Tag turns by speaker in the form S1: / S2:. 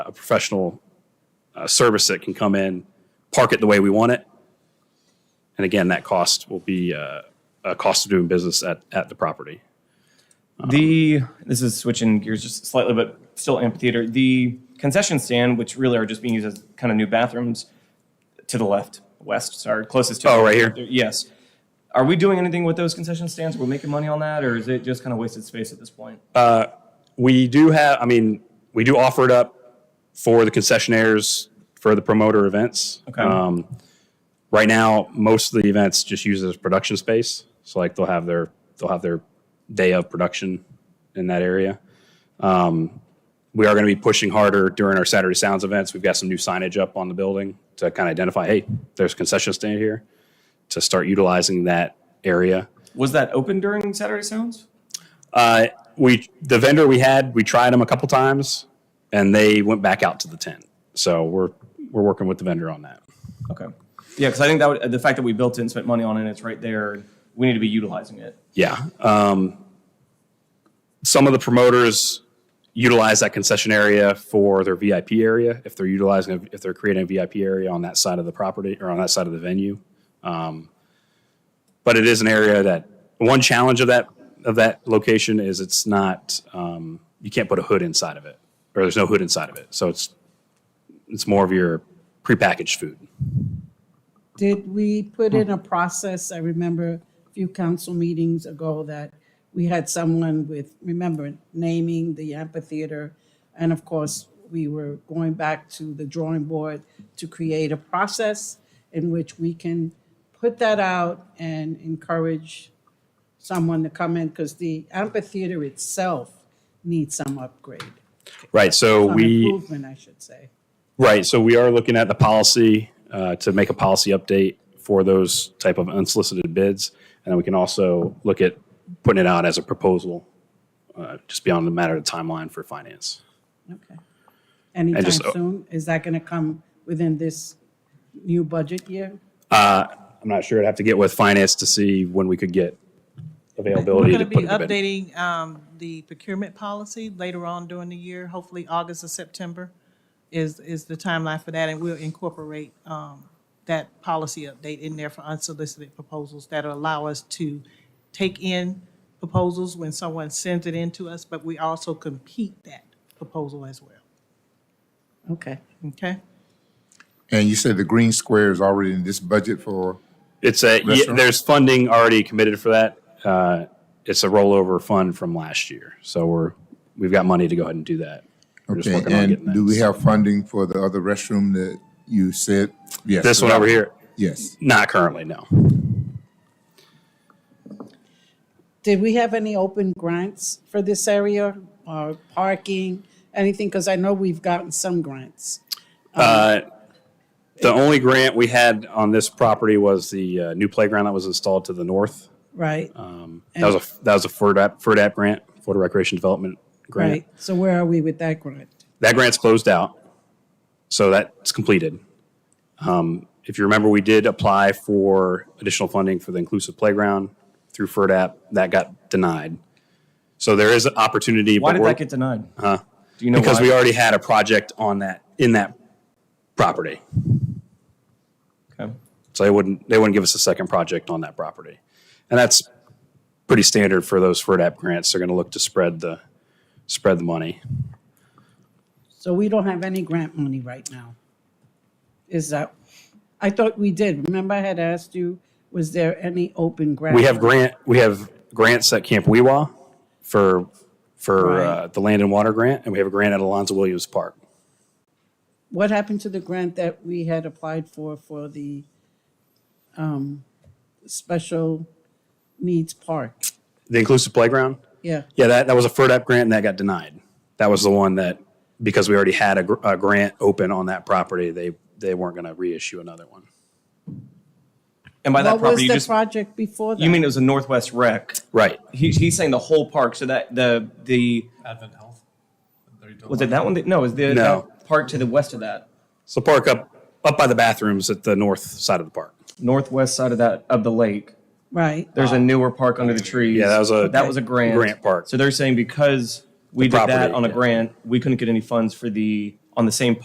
S1: a professional uh, service that can come in, park it the way we want it. And again, that cost will be uh, a cost of doing business at, at the property.
S2: The this is switching gears just slightly, but still amphitheater. The concession stand, which really are just being used as kind of new bathrooms, to the left, west, sorry, closest to.
S1: Oh, right here?
S2: Yes. Are we doing anything with those concession stands? We're making money on that, or is it just kind of wasted space at this point?
S1: We do have, I mean, we do offer it up for the concessionaires for the promoter events.
S2: Okay.
S1: Um, right now, most of the events just use it as production space. So like they'll have their they'll have their day of production in that area. Um, we are going to be pushing harder during our Saturday Sounds events. We've got some new signage up on the building to kind of identify, hey, there's a concession stand here, to start utilizing that area.
S2: Was that open during Saturday Sounds?
S1: Uh, we the vendor we had, we tried them a couple times, and they went back out to the tent. So we're we're working with the vendor on that.
S2: Okay. Yeah, because I think that would, the fact that we built it and spent money on it, it's right there. We need to be utilizing it.
S1: Yeah. Um, some of the promoters utilize that concession area for their VIP area if they're utilizing if they're creating a VIP area on that side of the property or on that side of the venue. Um, but it is an area that one challenge of that of that location is it's not um, you can't put a hood inside of it or there's no hood inside of it, so it's it's more of your prepackaged food.
S3: Did we put in a process, I remember a few council meetings ago that we had someone with, remember, naming the amphitheater. And of course, we were going back to the drawing board to create a process in which we can put that out and encourage someone to come in because the amphitheater itself needs some upgrade,
S1: Right. So
S3: some
S1: we
S3: improvement, I should say.
S1: Right, so we are looking at the policy uh, to make a policy update for those type of unsolicited bids, and we can also look at putting it out as a proposal, uh, just beyond the matter of timeline for finance.
S3: Okay. Anytime
S1: just-
S3: soon? Is that going to come within this new budget year?
S1: Uh, I'm not sure, I'd have to get with finance to see when we could get
S4: We're
S1: availability
S4: going
S1: to
S4: to be
S1: put it to bid.
S4: updating um, the procurement policy later on during the year, hopefully August or September is, is the timeline for that, and we'll incorporate um, that policy update in there for unsolicited proposals that'll allow us to take in proposals when someone sends it in to us, but we also compete that proposal as well,
S3: Okay.
S4: okay?
S5: And you said the green square is already in this budget for,
S1: It's a, yeah,
S5: Restaurant?
S1: there's funding already committed for that. Uh, It's a rollover fund from last year, so we're, we've got money to go ahead and do that. We're just
S5: okay,
S1: working on getting
S5: and
S1: that.
S5: do we have funding for the other restroom that you said? Yes.
S1: This one over here,
S5: Yes.
S1: not currently, no.
S3: Did we have any open grants for this area or parking, anything? Because I know we've gotten some grants.
S1: Uh, The only grant we had on this property was the uh, new playground that was installed to the north.
S3: Right,
S1: Uh, That was a that was a FERDAP, FERDAP grant, Florida Recreation Development grant.
S3: right. So where are we with that grant?
S1: That grant's closed out, so that's completed. Um, if you remember, we did apply for additional funding for the inclusive playground through FERDAP. That got denied. So there is an opportunity.
S2: Why
S1: but
S2: did
S1: we're-
S2: that get denied? Huh? Do you know
S1: because
S2: why?
S1: we already had a project on that in that property.
S2: Okay.
S1: So they wouldn't they wouldn't give us a second project on that property, and that's pretty standard for those FERDAP grants. They're going to look to spread the spread the money.
S3: So we don't have any grant money right now. Is that, I thought we did. Remember I had asked you, was there any open grant?
S1: We have grant we have grants at Camp Weewa for for uh, the land and water grant, and we have a grant at Alonzo Williams Park.
S3: What happened to the grant that we had applied for, for the um, special needs park?
S1: The inclusive playground,
S3: Yeah,
S1: yeah, that that was a FERDAP grant and that got denied. That was the one that because we already had a, gr- a grant open on that property, they they weren't going to reissue another one.
S2: And by that
S3: what was
S2: property, you
S3: the
S2: just
S3: project before that?
S2: you mean it was a Northwest Rec?
S1: Right.
S2: He, he's saying the whole park. So that the the
S6: Advent Health. Are you talking
S2: was it that one? That, no, it was
S1: No.
S2: the that park to the west of that
S1: So park up up by the bathrooms at the north side of the park.
S2: northwest side of that of the lake.
S3: Right,
S6: Ah.
S2: There's a newer park under the trees.
S1: Yeah, that was a-
S2: that was a grant
S1: grant park.
S2: So they're saying because we
S1: The
S2: did that
S1: property,
S2: on a
S1: yeah.
S2: grant, we couldn't get any funds for the on the same